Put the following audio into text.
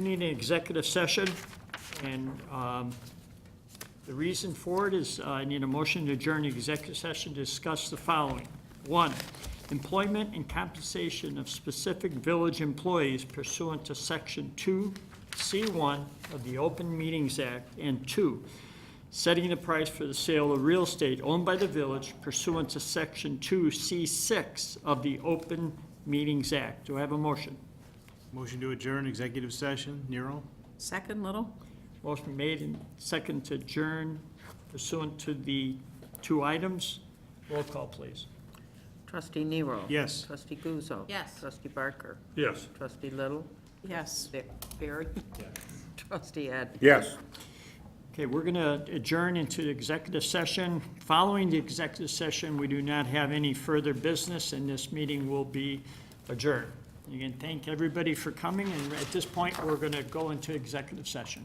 We need an executive session, and um, the reason for it is uh, I need a motion to adjourn the executive session to discuss the following. One, employment and compensation of specific village employees pursuant to Section 2C1 of the Open Meetings Act, and two, setting the price for the sale of real estate owned by the village pursuant to Section 2C6 of the Open Meetings Act. Do I have a motion? Motion to adjourn executive session, Nero? Second, Little? Motion made and second to adjourn pursuant to the two items. Roll call, please. Trustee Nero. Yes. Trustee Guzzo. Yes. Trustee Barker. Yes. Trustee Little. Yes. Vic Barry. Trustee Ed. Yes. Okay, we're going to adjourn into the executive session. Following the executive session, we do not have any further business, and this meeting will be adjourned. Again, thank everybody for coming, and at this point, we're going to go into executive session.